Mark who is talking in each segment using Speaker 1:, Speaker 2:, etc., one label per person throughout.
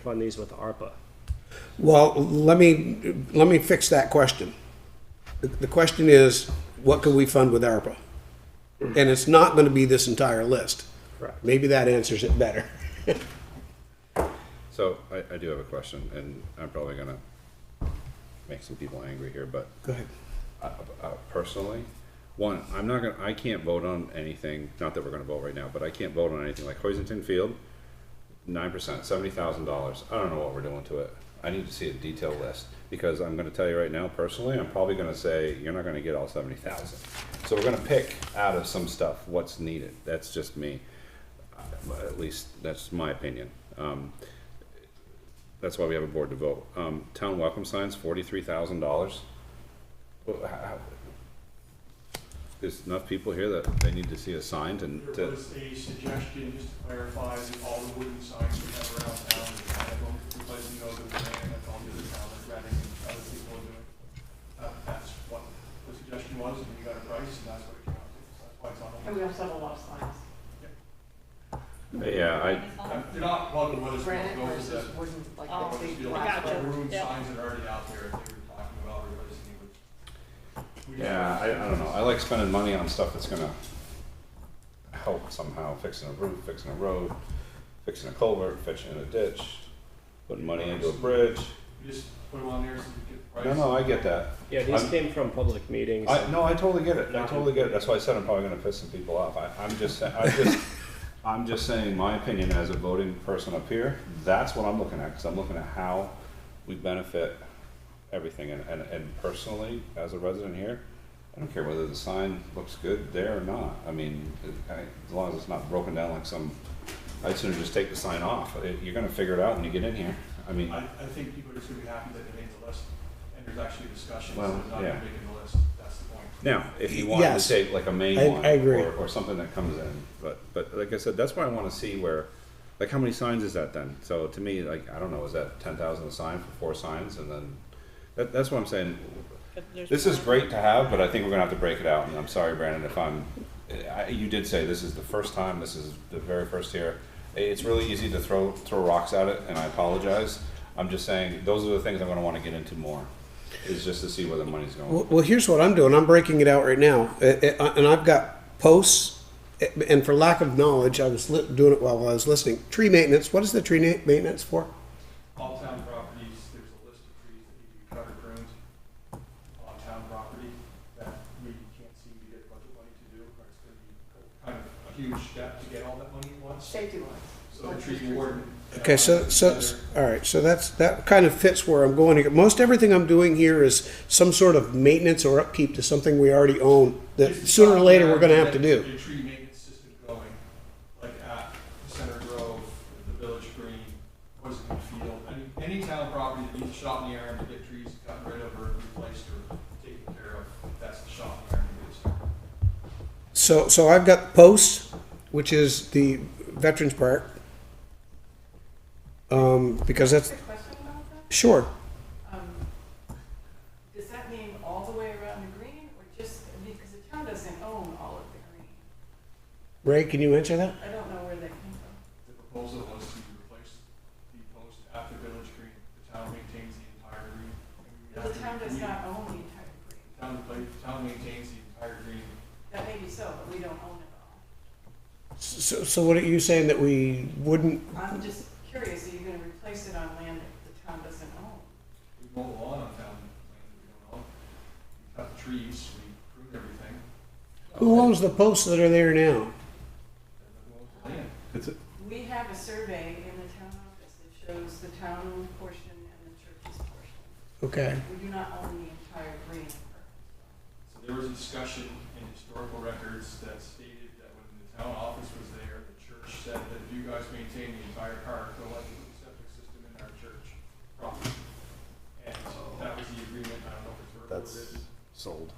Speaker 1: fund these with ARPA?
Speaker 2: Well, let me, let me fix that question. The- The question is, what can we fund with ARPA? And it's not gonna be this entire list.
Speaker 1: Correct.
Speaker 2: Maybe that answers it better.
Speaker 3: So I, I do have a question, and I'm probably gonna make some people angry here, but
Speaker 2: Go ahead.
Speaker 3: uh, uh, personally, one, I'm not gonna, I can't vote on anything, not that we're gonna vote right now, but I can't vote on anything like Hoisington Field, nine percent, seventy thousand dollars. I don't know what we're doing to it. I need to see a detailed list, because I'm gonna tell you right now, personally, I'm probably gonna say, you're not gonna get all seventy thousand. So we're gonna pick out of some stuff what's needed. That's just me. Uh, At least, that's my opinion. Um, that's why we have a board to vote. Um, town welcome signs, forty-three thousand dollars. There's enough people here that they need to see a sign and
Speaker 4: There
Speaker 3: to,
Speaker 4: was a suggestion, just to clarify, that all the wooden signs we have around town, we have them replacing those with granite, that's all the town, rather than other people are doing. Uh, That's what the suggestion was, and we got a price, and that's what it came out to, so that's why it's on the
Speaker 5: And we also have a lot of signs.
Speaker 3: yeah, I,
Speaker 4: Uh, They're not plugging with Oh, us,
Speaker 5: um, Granite
Speaker 4: they'll go with
Speaker 5: versus
Speaker 4: the-
Speaker 5: wooden, like
Speaker 4: they'll
Speaker 5: the
Speaker 4: just
Speaker 5: big
Speaker 4: be like,
Speaker 5: black.
Speaker 4: the room signs that are already out there, if they were talking about replacing it with- we just-
Speaker 3: yeah, I, I don't know. I like spending money on stuff that's gonna help somehow, fixing a roof, fixing a road, fixing a culvert, fixing a ditch, putting money into a bridge.
Speaker 4: We just put them on there so we get price.
Speaker 3: No, no, I get that.
Speaker 1: Yeah, these
Speaker 3: I'm-
Speaker 1: came from public meetings.
Speaker 3: I, no, I totally get it. I totally get it. That's why I said I'm probably gonna piss some people off. I, I'm just, sa- I just, I'm just saying my opinion as a voting person up here. That's what I'm looking at, cause I'm looking at how we benefit everything and, and, and personally, as a resident here, I don't care whether the sign looks good there or not. I mean, it- I, as long as it's not broken down like some, I'd sooner just take the sign off. It- You're gonna figure it out when you get in here. I mean,
Speaker 4: I, I think people are just gonna be happy that they made the list, and there's actually discussions, so
Speaker 3: Well,
Speaker 4: it's not
Speaker 3: yeah.
Speaker 4: making the list, that's the point.
Speaker 3: Now, if you wanted
Speaker 2: Yes.
Speaker 3: to take like a main
Speaker 2: I-
Speaker 3: one
Speaker 2: I agree.
Speaker 3: Or, or something that comes in, but but like I said, that's why I want to see where, like how many signs is that then? So to me, like I don't know, is that ten thousand a sign for four signs, and then that, that's what I'm saying. This is great to have, but I think we're gonna have to break it out. And I'm sorry, Brandon, if I'm. I, you did say this is the first time. This is the very first year. It's really easy to throw throw rocks at it, and I apologize. I'm just saying those are the things I'm gonna want to get into more. Is just to see where the money's going.
Speaker 2: Well, well, here's what I'm doing. I'm breaking it out right now, Uh, uh, and I've got posts. uh, And for lack of knowledge, I was li- doing it while I was listening. Tree maintenance. What is the tree na- maintenance for?
Speaker 4: All town properties, there's a list of trees that need to be cut or pruned on town property that we can't seem to get budget money to do, or it's gonna be kind of a huge step to get all that money at once.
Speaker 5: Safety ones.
Speaker 4: So the tree warden.
Speaker 2: Okay, so so
Speaker 4: Together.
Speaker 2: all right. So that's that kind of fits where I'm going here. Most everything I'm doing here is some sort of maintenance or upkeep to something we already own that
Speaker 4: Just
Speaker 2: sooner or later we're going to have to
Speaker 4: get
Speaker 2: do.
Speaker 4: Your tree maintenance system going, like at Center Grove, the Village Green, Poison Field, any, any town property that needs a shot in the arm to get trees gotten rid of or replaced or taken care of, that's the shot in the arm to get started.
Speaker 2: So so I've got posts, which is the veterans park, um, because that's
Speaker 5: question about that?
Speaker 2: sure.
Speaker 5: Um, Does that mean all the way around the green or just, I mean, because the town doesn't own all of the green.
Speaker 2: Ray, can you answer that?
Speaker 5: I don't know where that came from.
Speaker 4: The proposal was to replace the post at the Village Green. The town maintains the entire green.
Speaker 5: The town does
Speaker 4: We-
Speaker 5: not own the entire green.
Speaker 4: Town, pla- town maintains the entire green.
Speaker 5: That may be so, but we don't own it all.
Speaker 2: So, so what are you saying that we wouldn't?
Speaker 5: I'm just curious, are you going to replace it on land that the town doesn't own?
Speaker 4: We mow the lawn on town land that we don't own. We cut the trees, we prune everything.
Speaker 2: Who owns the posts that are there now?
Speaker 5: We have a survey in the town office that shows the town portion and the church's portion.
Speaker 2: Okay.
Speaker 5: We do not own the entire green.
Speaker 4: So there was a discussion in historical records that stated that when the town office was there, the church said that if you guys maintain the entire park, we'll let you put the septic system in our church property. And that was the agreement, I don't know if it's verbal or
Speaker 6: That's-
Speaker 4: written.
Speaker 6: sold.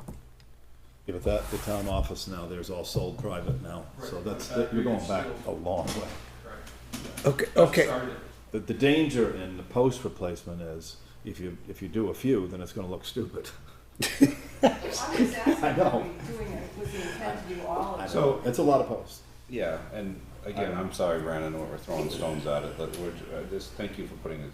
Speaker 6: Yeah, but that, the town office now, there's all sold private now, so
Speaker 4: Right.
Speaker 6: that's, that- you're going back a long way.
Speaker 4: Correct.
Speaker 2: Okay.
Speaker 4: That's
Speaker 2: Okay.
Speaker 4: started.
Speaker 6: The, the danger in the post replacement is, if you, if you do a few, then it's gonna look stupid.
Speaker 5: I was asking,
Speaker 6: I
Speaker 5: are
Speaker 6: know.
Speaker 5: we doing it with the intent to do all of it?
Speaker 6: So, it's a lot of posts.
Speaker 3: Yeah, and again, I'm sorry, Brandon, that we're throwing stones at it, but we're, uh, just thank you for putting it